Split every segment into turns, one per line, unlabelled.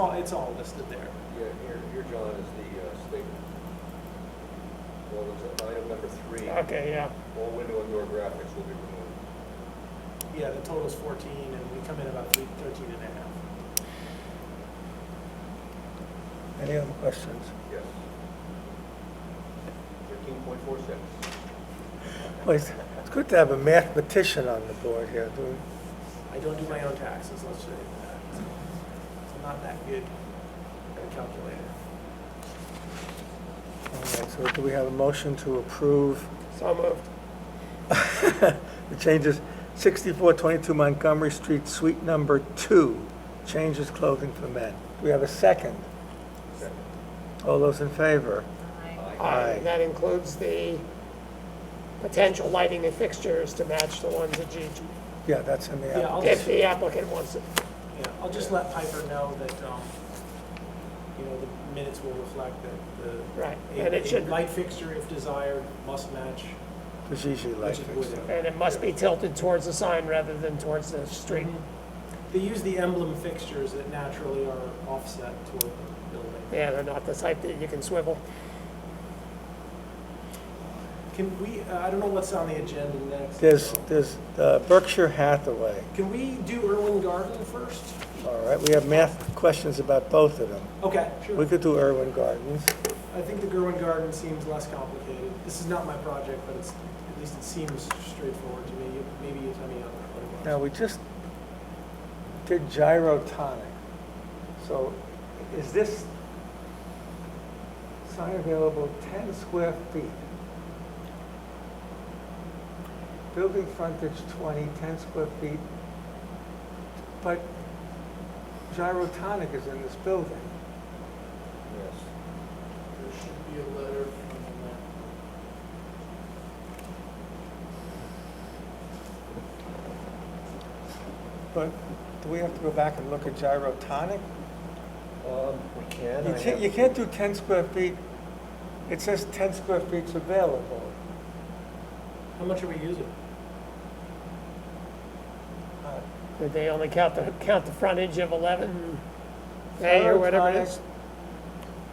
all- It's all listed there.
Yeah, here, here, John, is the uh, statement. Well, it's item number three,
Okay, yeah.
all window and door graphics will be removed.
Yeah, the total's 14, and we come in about three- 13 and a half.
Any other questions?
Yes. Thirteen point four six.
Well, it's, it's good to have a mathematician on the board here, doing,
I don't do my own taxes, let's say that. I'm not that good at calculating.
all right, so do we have a motion to approve
So moved.
the changes, sixty-four twenty-two Montgomery Street, suite number two, changes clothing for men. Do we have a second?
Second.
All those in favor? Aye.
And that includes the potential lighting and fixtures to match the ones that you,
Yeah, that's in the,
Yeah,
app.
I'll
if
just,
the applicant wants it.
yeah, I'll just let Piper know that, um, you know, the minutes will reflect that the.
Right,
a-
and it
a
should-
Light fixture, if desired, must match,
there's usually light
which it would.
fixture.
And it must be tilted towards the sign rather than towards the street.
Mhm. They use the emblem fixtures that naturally are offset toward the building.
Yeah, they're not the type that you can swivel.
Can we, uh, I don't know what's on the agenda next.
There's,
so-
there's uh, Berkshire Hathaway,
Can we do Irwin Garden first?
all right, we have math questions about both of them.
Okay,
We
sure.
could do Irwin Gardens,
I think the Gerwin Garden seems less complicated. This is not my project, but it's, at least it seems straightforward to me. You- Maybe you tell me otherwise.
now, we just did gyrotonic, so is this sign available ten square feet? Building frontage 20, 10 square feet, but gyrotonic is in this building.
Yes.
There should be a letter from
But do we have to go back and look at gyrotonic?
Um, we can.
You can't, you can't do 10 square feet, it says 10 square feet's available.
that. How much are we using?
Uh,
Did they only count the, count the frontage of 11 A or whatever it is?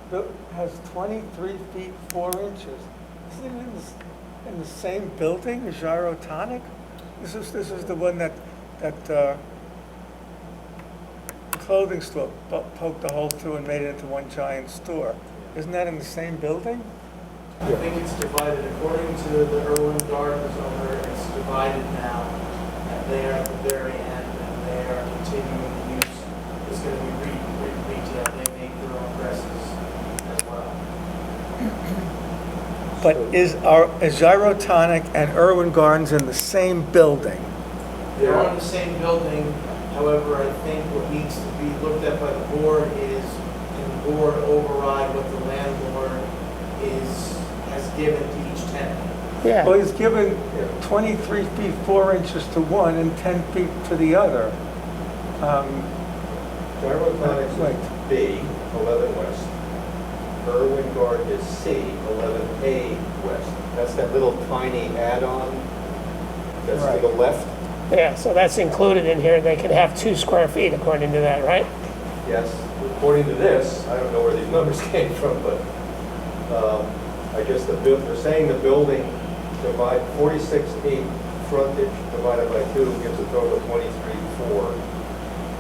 Gyrotonic bu- Has 23 feet 4 inches. Isn't it in the, s- in the same building as gyrotonic? This is, this is the one that, that uh, clothing store po- poked a hole through and made it into one giant store. Isn't that in the same building?
I think it's divided, according to the Irwin Gardens owner, it's divided now. And they are at the very end, and they are continuing the use. It's going to be re, re, retail, they make their own dresses as well.
But is our, is Gyrotonic and Irwin Gardens in the same building?
They're on the same building, however, I think what needs to be looked at by the board is, can the board override what the landlord is, has given to each tenant?
Well,
Oh, Yeah,
he's given 23 feet 4 inches to one and 10 feet to the other. Um,
Gyrotonics
Right.
is B, eleven west. Irwin Garden is C, eleven A west. That's that little tiny add-on that's to the
Right.
left.
yeah, so that's included in here. They can have two square feet according to that, right?
Yes, according to this, I don't know where these numbers came from, but um, I guess the, buil- they're saying the building divide 46 feet frontage divided by two gives a total of 23 four.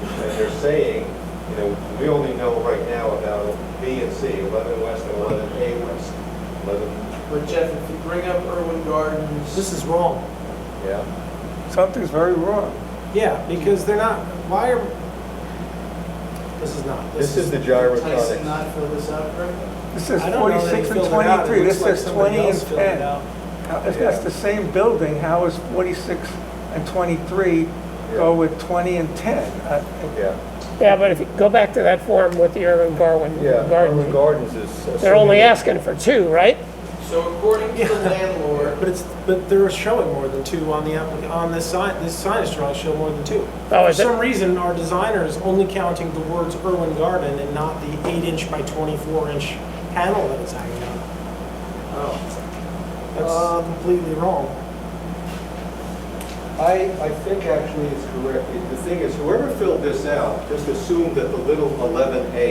And they're saying, you know, we only know right now about B and C, 11 west and 11 A west. 11,
But Jeff, if you bring up Irwin Gardens.
This is wrong.
yeah.
Something's very wrong.
Yeah, because they're not, why are, this is not.
This is the
Tyson
gyrotonic.
not fill this out correctly?
This is
I don't know that he
46 and
filled it out. It
23, this
looks like
says
somebody
20 and
else filled it
10.
out.
How- If that's
Yeah.
the same building, how is 46 and 23 go
Yeah.
with 20 and 10? Uh,
Yeah,
Yeah, but if you go back to that form with the urban Garwin
yeah. Irwin
garden,
Gardens is.
they're only asking for two, right?
So according to the landlord,
But it's, but they're showing more than two on the applica, on this sign, this signage drawing show more than two.
Oh,
For
is it?
some reason, our designer is only counting the words Irwin Garden and not the eight inch by twenty-four inch panel that it's hanging on.
oh,
That's completely wrong.
I, I think actually it's correct. The thing is, whoever filled this out just assumed that the little eleven A